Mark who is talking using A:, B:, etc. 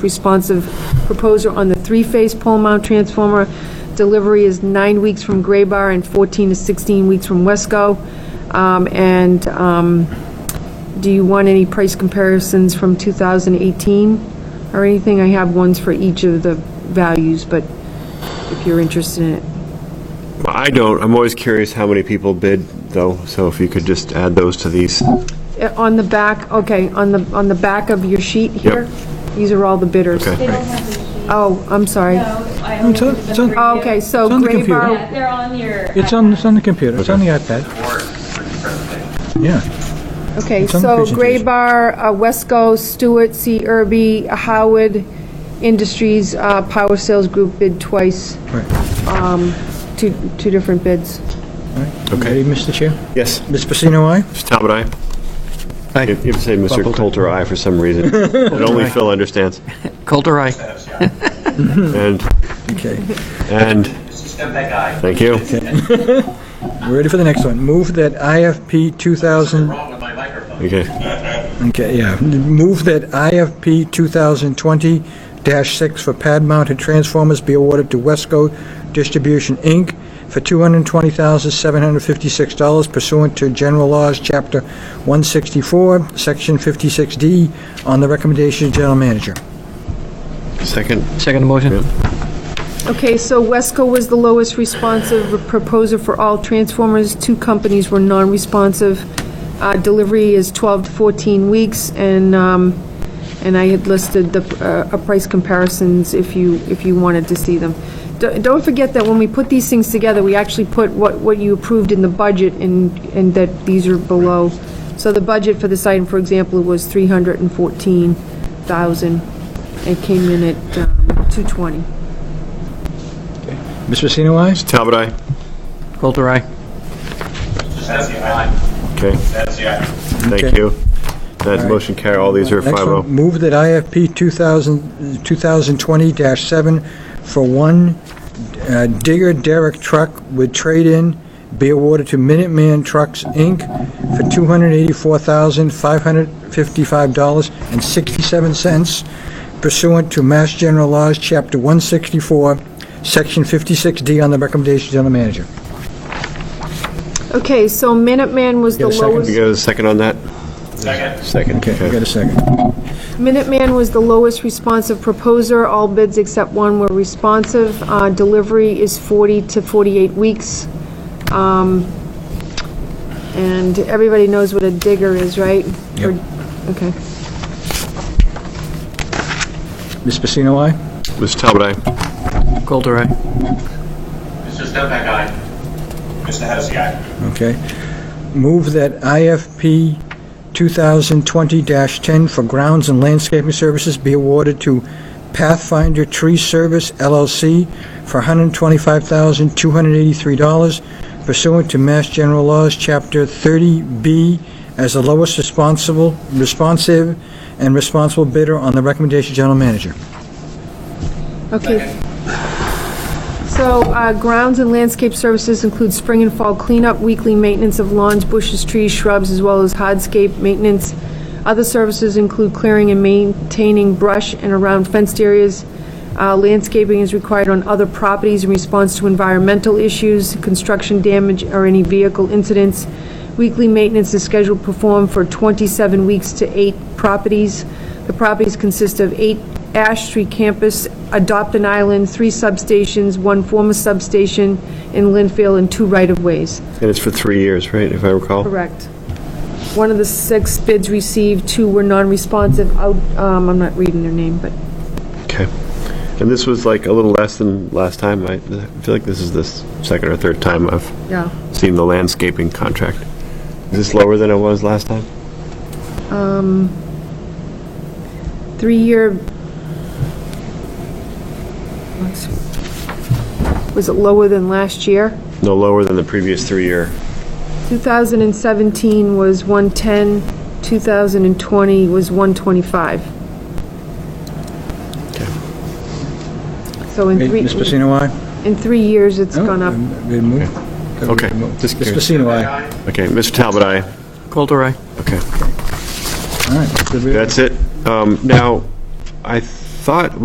A: responsive proposer on the three-phase pole mount transformer. Delivery is nine weeks from Gray Bar and 14 to 16 weeks from Wesco. Um, And um, do you want any price comparisons from 2018 or anything? I have ones for each of the values, but if you're interested in it.
B: I don't, I'm always curious how many people bid, though, so if you could just add those to these.
A: Uh, On the back, okay, on the, on the back of your sheet here, these are all the bidders.
B: Okay.
C: They don't have the sheet.
A: Oh, I'm sorry.
C: No, I only
D: It's on-
C: looked at
D: it's on-
C: the
A: Oh,
C: preview.
A: Okay, so
D: It's on the
A: Gray
D: computer.
A: Bar,
C: Yeah, they're on your.
D: It's on, it's
C: iPad.
D: on the computer, it's on the iPad, yeah.
A: Okay,
D: It's on the
A: so
D: presentation.
A: Gray Bar, uh, Wesco, Stewart, C. Irby, Howard Industries, uh, Power Sales Group bid twice,
D: Right.
A: two, two different bids.
D: Ready, Mr. Chair?
B: Yes,
D: Ms. Pacino, aye?
B: Mr. Talbot, aye.
E: Aye.
B: You have to say Mr.
E: Buckle.
B: Coulter, aye, for some reason. That only Phil understands.
E: Coulter, aye.
B: And,
D: Okay.
B: and, thank you.
D: We're ready for the next one. Move that IFP 2000,
B: Okay,
D: okay, yeah. Move that IFP 2020-6 for pad-mounted transformers be awarded to Wesco Distribution, Inc. for $220,756 pursuant to General Laws, Chapter 164, Section 56D, on the recommendation of General Manager.
B: second,
E: Second motion?
A: Okay, so Wesco was the lowest responsive proposer for all transformers. Two companies were non-responsive. Uh, Delivery is 12 to 14 weeks, and, um, and I had listed the uh, uh, price comparisons if you, if you wanted to see them. D- Don't forget that when we put these things together, we actually put what, what you approved in the budget and, and that these are below. So the budget for this item, for example, was 314,000. It came in at um, 220.
D: Ms. Pacino, aye?
B: Talbot, aye.
E: Coulter, aye.
B: Okay, thank
D: Okay.
B: you. That motion carry, all these are oh.
D: Next one,
B: 5
D: Move that IFP 2000 2020-7 for one uh, digger derrick truck with trade-in be awarded to Minuteman Trucks, Inc. for $284,555.67 pursuant to Mass General Laws, Chapter 164, Section 56D, on the recommendation of the General Manager.
A: Okay, so Minuteman was the
D: Get a second.
B: You
A: lowest,
B: got a second on that? Second.
D: Okay, we
B: Okay,
D: got a second.
A: Minuteman was the lowest responsive proposer. All bids except one were responsive. Uh, Delivery is 40 to 48 weeks. Um, And everybody knows what a digger is, right?
D: Yep.
A: Okay.
D: Ms. Pacino, aye?
B: Mr. Talbot, aye.
E: Coulter, aye.
F: Mr. Stepback, aye. Mr. Hennessy, aye.
D: Okay. Move that IFP 2020-10 for grounds and landscaping services be awarded to Pathfinder Tree Service LLC for $125,283 pursuant to Mass General Laws, Chapter 30B, as the lowest responsible, responsive, and responsible bidder on the recommendation of General Manager.
A: Okay. So uh, grounds and landscape services include spring and fall cleanup, weekly maintenance of lawns, bushes, trees, shrubs, as well as hardscape maintenance. Other services include clearing and maintaining brush and around fenced areas. Uh, Landscaping is required on other properties in response to environmental issues, construction damage, or any vehicle incidents. Weekly maintenance is scheduled performed for 27 weeks to eight properties. The properties consist of eight Ash Street campus, adopt an island, three substations, one former substation in Linfield, and two right-of-ways.
B: And it's for three years, right, if I recall?
A: Correct. One of the six bids received, two were non-responsive. Out, um, I'm not reading their name, but
B: Okay. And this was like a little less than last time. I I feel like this is the second or third time I've
A: Yeah.
B: seen the landscaping contract. Is this lower than it was last time?
A: three-year, was it lower than last year?
B: No, lower than the previous three-year.
A: 2017 was 110, 2020 was 125.
B: Okay.
A: So in three,
D: Ms. Pacino, aye?
A: in three years, it's
D: Oh,
A: gone up.
D: Been moved.
B: Okay.
D: Ms.
B: Just curious.
D: Pacino, aye?
B: Okay, Mr. Talbot, aye.
E: Coulter, aye.
B: Okay,
D: All right.
B: that's it. Um, Now, I thought